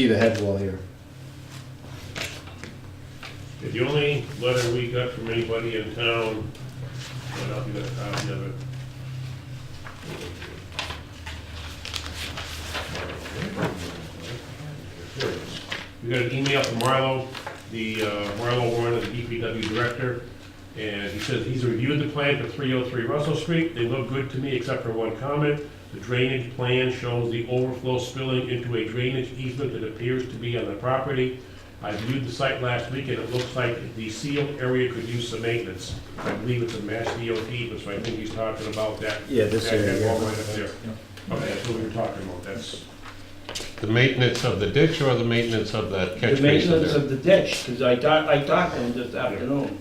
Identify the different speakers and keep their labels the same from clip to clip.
Speaker 1: see the head wall here.
Speaker 2: The only letter we got from anybody in town, and I'll get a copy of it. We got an email from Marlo, the, uh, Marlo Warren, the DPW director, and he says he's reviewed the plan for three oh three Russell Street. They look good to me except for one comment. The drainage plan shows the overflow spilling into a drainage easement that appears to be on the property. I viewed the site last week, and it looks like the sealed area could use some maintenance. I believe it's a Mass DOT, but so I think he's talking about that.
Speaker 1: Yeah, this
Speaker 2: that- that
Speaker 1: area, yeah.
Speaker 2: wall right up there. Okay, that's what we were talking about, that's,
Speaker 3: The maintenance of the ditch or the maintenance of that
Speaker 4: The
Speaker 3: catch basin
Speaker 4: maintenance
Speaker 3: there?
Speaker 4: of the ditch, because I talked, I talked to him this afternoon.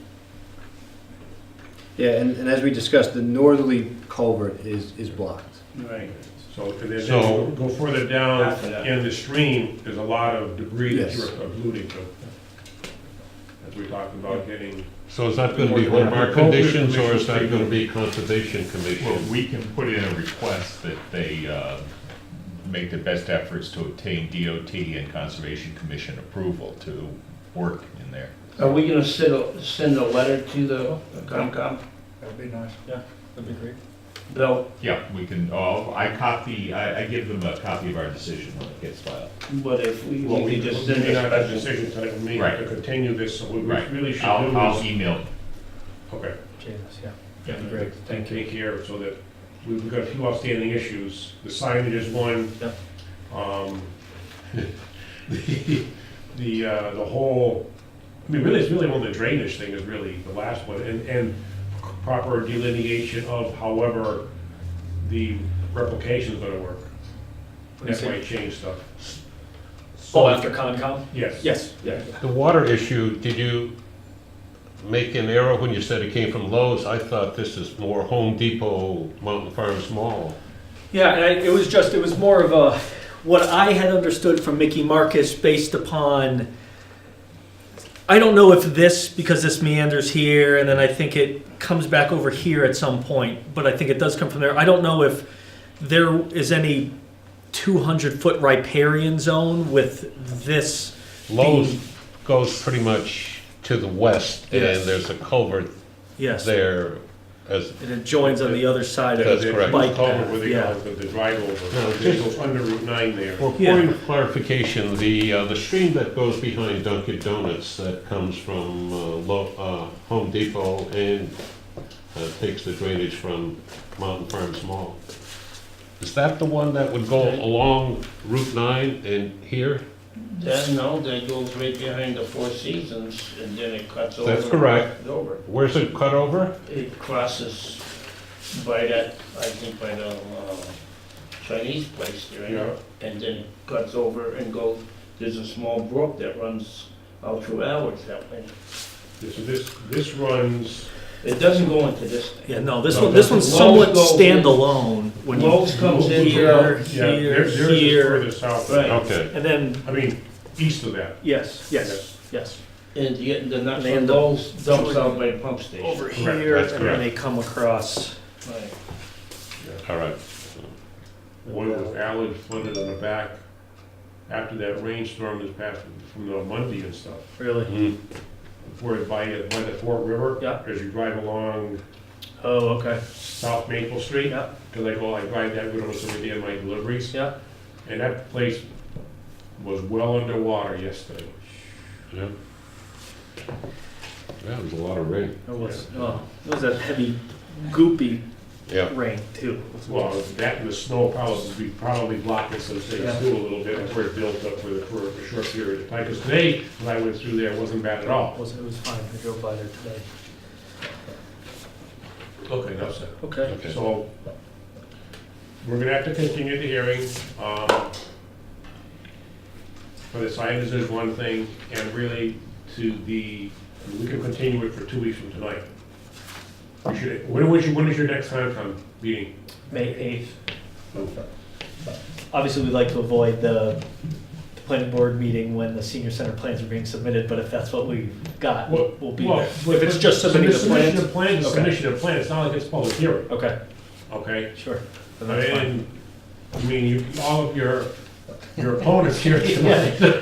Speaker 1: Yeah, and, and as we discussed, the northerly culvert is, is blocked.
Speaker 4: Right.
Speaker 2: so, and then
Speaker 3: So-
Speaker 2: go further
Speaker 3: Oh,
Speaker 2: down
Speaker 4: After that.
Speaker 2: in the stream, there's a lot of debris that
Speaker 1: Yes.
Speaker 2: you're alluding to. As we talked about getting,
Speaker 3: So is that gonna be one of our conditions, or is that gonna be conservation
Speaker 5: Well,
Speaker 3: commission?
Speaker 5: we can put in a request that they uh, make the best efforts to obtain DOT and Conservation Commission approval to work in there.
Speaker 4: Are we gonna send, a- send a letter to the Concom,
Speaker 6: That'd be nice.
Speaker 4: Yeah.
Speaker 6: That'd be great.
Speaker 4: Bill,
Speaker 5: Yeah, we can, oh, I copy, I, I give them a copy of our decision when it gets filed.
Speaker 4: but if we,
Speaker 2: well,
Speaker 4: we
Speaker 2: we
Speaker 4: could
Speaker 2: just
Speaker 4: just send
Speaker 2: did
Speaker 4: a
Speaker 2: not have a
Speaker 4: special.
Speaker 2: decision tonight, we may
Speaker 5: Right.
Speaker 2: have to continue this, so what we
Speaker 5: Right.
Speaker 2: really should
Speaker 5: I'll, I'll
Speaker 2: do is.
Speaker 5: email.
Speaker 2: Okay.
Speaker 6: Jesus, yeah.
Speaker 1: That'd be great.
Speaker 2: Take care, so that, we've got a few outstanding issues, the signage is one.
Speaker 6: Yep.
Speaker 2: Um, The, the, uh, the whole, I mean, really, it's really one of the drainage thing is really the last one, and, and proper delineation of however the replication's gonna work. That might change stuff,
Speaker 7: Oh, after Concom?
Speaker 2: yes.
Speaker 7: Yes, yeah.
Speaker 3: The water issue, did you make an error when you said it came from Lowe's? I thought this is more Home Depot, Mountain Farms Mall.
Speaker 7: Yeah, and I, it was just, it was more of a, what I had understood from Mickey Marcus based upon, I don't know if this, because this meanders here, and then I think it comes back over here at some point, but I think it does come from there. I don't know if there is any 200-foot riparian zone with this.
Speaker 3: Lowe's
Speaker 7: Being-
Speaker 3: goes pretty much to the west, and
Speaker 7: Yes.
Speaker 3: there's a culvert
Speaker 7: Yes, it
Speaker 3: there as,
Speaker 7: adjoins on the other side of
Speaker 3: That's
Speaker 2: The- the
Speaker 3: correct.
Speaker 7: Bike
Speaker 2: culvert where they
Speaker 7: path,
Speaker 2: go, the, the drive over,
Speaker 3: No,
Speaker 2: it
Speaker 3: just-
Speaker 2: goes under Route nine there.
Speaker 3: Well, point of clarification, the, uh, the stream that goes behind Dunkin' Donuts that comes from, uh, Lo, uh, Home Depot and, uh, takes the drainage from Mountain Farms Mall. Is that the one that would go along Route nine and here?
Speaker 4: That, no, that goes right behind the Four Seasons, and then it cuts over.
Speaker 3: That's correct.
Speaker 4: it's Over.
Speaker 3: Where's it cut over?
Speaker 4: It crosses by that, I think by the, uh, Chinese place there,
Speaker 2: Yeah.
Speaker 4: and then it cuts over and goes, there's a small brook that runs out through ours that way.
Speaker 2: This, this, this runs,
Speaker 4: It doesn't go into this thing.
Speaker 7: Yeah, no, this
Speaker 2: No,
Speaker 7: one, this one's
Speaker 4: that's-
Speaker 7: somewhat
Speaker 4: Lowe's goes in.
Speaker 7: standalone when you.
Speaker 4: Lowe's comes in
Speaker 7: Here,
Speaker 4: here,
Speaker 2: yeah, there,
Speaker 7: here,
Speaker 2: there's a
Speaker 7: here,
Speaker 2: further south. Um,
Speaker 4: Right.
Speaker 3: Okay,
Speaker 7: and then,
Speaker 2: I mean, east of that.
Speaker 7: yes, yes, yes,
Speaker 4: and the, the nuts
Speaker 7: They
Speaker 4: and
Speaker 7: end up
Speaker 4: bolts dumps out by the pump station.
Speaker 7: over
Speaker 2: Correct,
Speaker 7: here, and
Speaker 3: that's
Speaker 7: then they come across.
Speaker 4: Right.
Speaker 3: all right.
Speaker 2: One was alley flooded on the back after that rainstorm this past, from the Monday and stuff.
Speaker 7: Really?
Speaker 3: Mm.
Speaker 2: Where by, by the Fort River.
Speaker 7: Yeah.
Speaker 2: As you drive along
Speaker 7: Oh, okay.
Speaker 2: South Maple Street.
Speaker 7: Yeah.
Speaker 2: Cause I go, I ride that road almost every day on my deliveries.
Speaker 7: Yeah.
Speaker 2: And that place was well underwater yesterday.
Speaker 3: Yeah, That was a lot of rain.
Speaker 7: It was, oh, it was that heavy, goopy
Speaker 3: Yeah.
Speaker 7: rain too.
Speaker 2: Well, that and the snow probably, we probably blocked it some things
Speaker 7: Yeah.
Speaker 2: too a little bit, that's where it built up for, the- for a short period of time. Cause today, when I went through there, it wasn't bad at
Speaker 7: It
Speaker 2: all.
Speaker 7: was, it was fine, I drove by there today.
Speaker 2: Okay, that's it.
Speaker 7: Okay.
Speaker 3: Okay.
Speaker 2: So, we're gonna have to continue the hearing. um, For the signage is one thing, and really to the, we can continue it for two weeks from tonight. We should, when was your, when is your next Concom meeting?
Speaker 7: May eighth. Obviously, we'd like to avoid the the planning board meeting when the senior center plans are being submitted, but if that's what we've got,
Speaker 2: Well,
Speaker 7: we'll be
Speaker 2: well,
Speaker 7: there. If it's just submitting the
Speaker 2: Submission
Speaker 7: plans,
Speaker 2: of plans,
Speaker 7: Okay.
Speaker 2: submission of plans, it's not like it's public hearing,
Speaker 7: okay,
Speaker 2: okay?
Speaker 7: sure. Then that's fine.
Speaker 2: And, I mean, you, all of your your opponents here tonight.